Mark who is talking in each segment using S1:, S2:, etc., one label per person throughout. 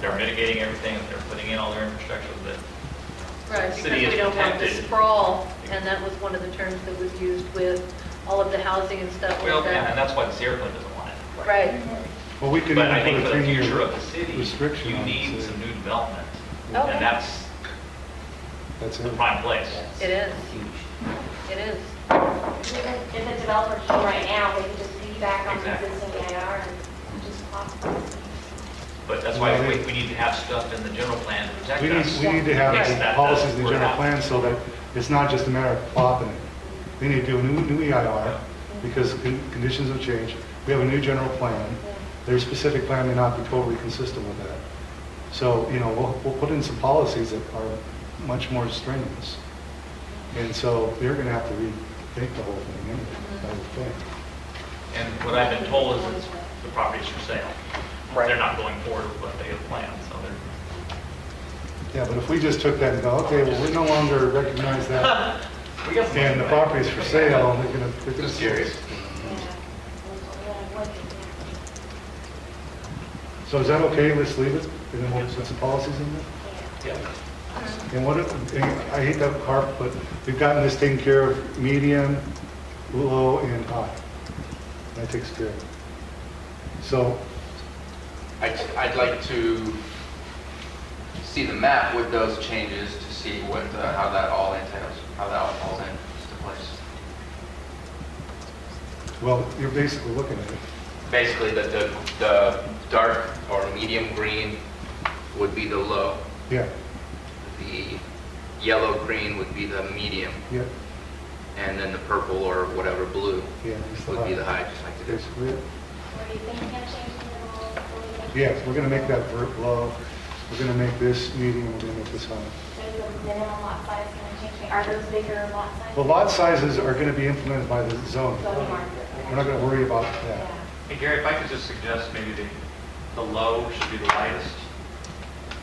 S1: they're mitigating everything, if they're putting in all their infrastructure, that
S2: Right, because
S1: City is
S2: we don't want the
S1: protected.
S2: sprawl, and that was one of the terms that was used with all of the housing and stuff
S1: Well,
S2: like
S1: yeah, and
S2: that.
S1: that's why the Sierra Club doesn't want it.
S2: Right,
S3: Well, we could
S1: But I
S3: even
S1: think
S3: put a
S1: for the
S3: three-year
S1: future of the city,
S3: restriction
S1: you
S3: on it,
S1: need
S3: so
S1: some new development.
S2: Okay.
S1: And that's
S3: That's
S1: the
S3: it.
S1: prime place.
S2: it is, it is.
S4: If if a developer came right now, they could just piggyback on the
S1: Exactly.
S4: existing AR and just pop.
S1: But that's why
S3: Well,
S1: we,
S3: they-
S1: we need to have stuff in the general plan to protect
S3: We need,
S1: us.
S3: we need to
S1: Yes,
S3: have the
S1: that
S3: policies
S1: does
S3: in the
S1: work
S3: general
S1: out.
S3: plan so that it's not just a matter of plopping it. We need to do a new, new EIR because con- conditions have changed. We have a new general plan. Their specific plan may not be totally consistent with that. So, you know, we'll, we'll put in some policies that are much more strenuous. And so they're going to have to rethink the whole thing anyway, I would think.
S1: And what I've been told is it's, the property's for sale.
S5: Right.
S1: They're not going forward with what they have planned, so they're,
S3: Yeah, but if we just took that and go, okay, well, we no longer recognize that,
S1: we got some.
S3: and the property's for sale, and they're gonna... they're gonna-
S1: Just curious.
S3: So is that okay, let's leave it, and then we'll put some policies in there?
S1: Yeah.
S3: And what, if- and I hate to harp, but we've gotten this taken care of, median, low, and high. That takes care of it. So,
S5: I'd, I'd like to see the map with those changes to see what, uh, how that all entails, how that all falls into place.
S3: well, you're basically looking at it.
S5: Basically, the, the, the dark or medium green would be the low,
S3: Yeah,
S5: the yellow-green would be the medium,
S3: yeah,
S5: and then the purple or whatever blue
S3: yeah. it's
S5: would be the
S3: high.
S5: high, just like it is.
S3: Basically, it.
S4: What do you think, can change the rule? What do you think?
S3: yes, we're gonna make that vert low, we're gonna make this medium, we're gonna make this high.
S4: There's a minimum lot size going to change, are those bigger lot sizes?
S3: The lot sizes are going to be implemented by the zone.
S4: Zoning market.
S3: We're not going to worry about
S4: Yeah.
S3: that.
S6: Hey Gary, if I could just suggest maybe the, the low should be the lightest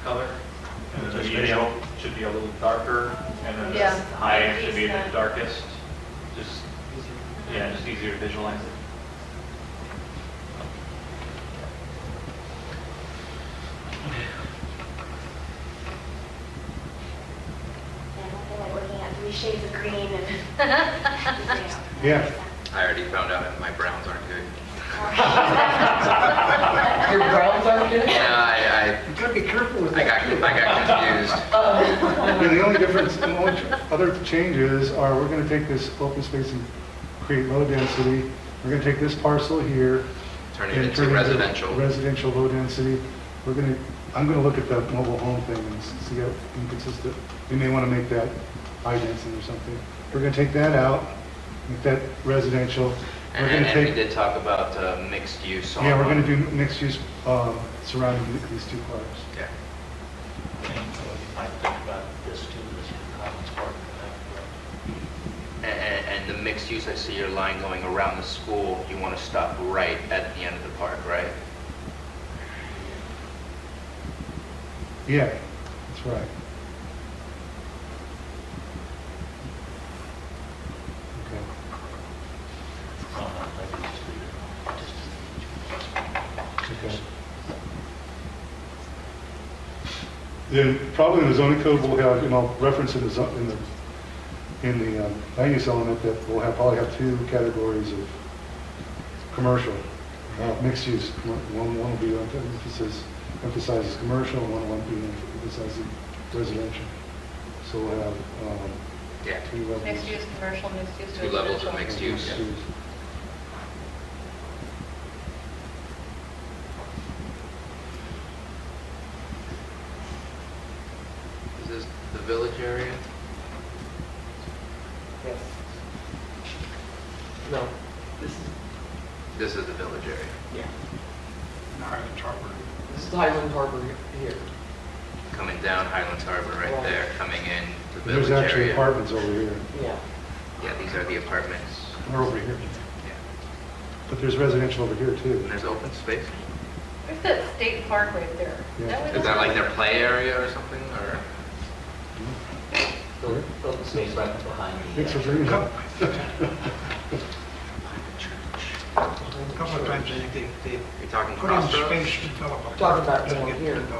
S6: color, and the
S1: Just
S6: medium should be a little darker, and then
S2: Yeah.
S6: the high should be the
S4: Easier.
S6: darkest, just, yeah, just easier to visualize it.
S4: Yeah, I feel like looking at three shades of green and.
S3: Yeah.
S5: I already found out that my browns aren't good.
S7: Your browns aren't good?
S5: Yeah, I,
S7: You gotta be careful with
S5: I, I got, I got
S3: Yeah,
S5: confused.
S3: The only difference, the only other changes are we're going to take this open space and create low density. We're going to take this parcel here.
S5: Turn it
S3: and
S5: into
S3: turn
S5: residential.
S3: Residential low density. We're going to, I'm going to look at the mobile home thing and s- see how inconsistent, we may want to make that high density or something. We're going to take that out, make that residential. We're
S5: And,
S3: gonna
S5: and we
S3: take-
S5: did talk about uh, mixed use. on-
S3: Yeah, we're going to do mixed-use um, surrounding th- these two parks.
S5: Yeah.
S8: I think about this too, this Collins Park.
S5: And, and and the mixed use, I see your line going around the school, you want to stop right at the end of the park, right?
S3: Yeah, that's right. Okay.
S8: It's not on Liberty Street at all, just
S3: Okay. Then probably in the zoning code, we'll have, you know, reference in the, zo- in the, in the um, land use element that we'll have, probably have two categories of commercial, uh, mixed use. One, one will be emphasis, emphasizes commercial, and one will be emphasizing residential. So we'll have um,
S5: Yeah.
S3: two levels.
S2: Mixed use commercial, mixed use
S5: Two levels of
S2: residential.
S5: mixed use. Is this the village area?
S7: Yes. No, this is,
S5: This is the village area.
S7: yeah,
S8: Highland Harbor.
S7: this is Highland Harbor here.
S5: Coming down Highlands Harbor right
S7: Right.
S5: there, coming in the village
S3: There's actually
S5: area.
S3: apartments over here,
S7: Yeah.
S5: Yeah, these are the apartments.
S3: or over here,
S5: Yeah.
S3: but there's residential over here too.
S5: And there's open space.
S2: There's that state park right there.
S3: Yeah.
S2: That was-
S5: Is that like their play area or something, or?
S3: Sure.
S8: The open space right behind the. uh,
S3: Thanks for bringing it up.
S9: couple of times, I think they, they
S5: You're talking
S9: put in
S5: crossroads?
S9: space to develop.
S7: Talking about
S9: Doesn't
S7: down
S9: get
S7: here.
S9: developed.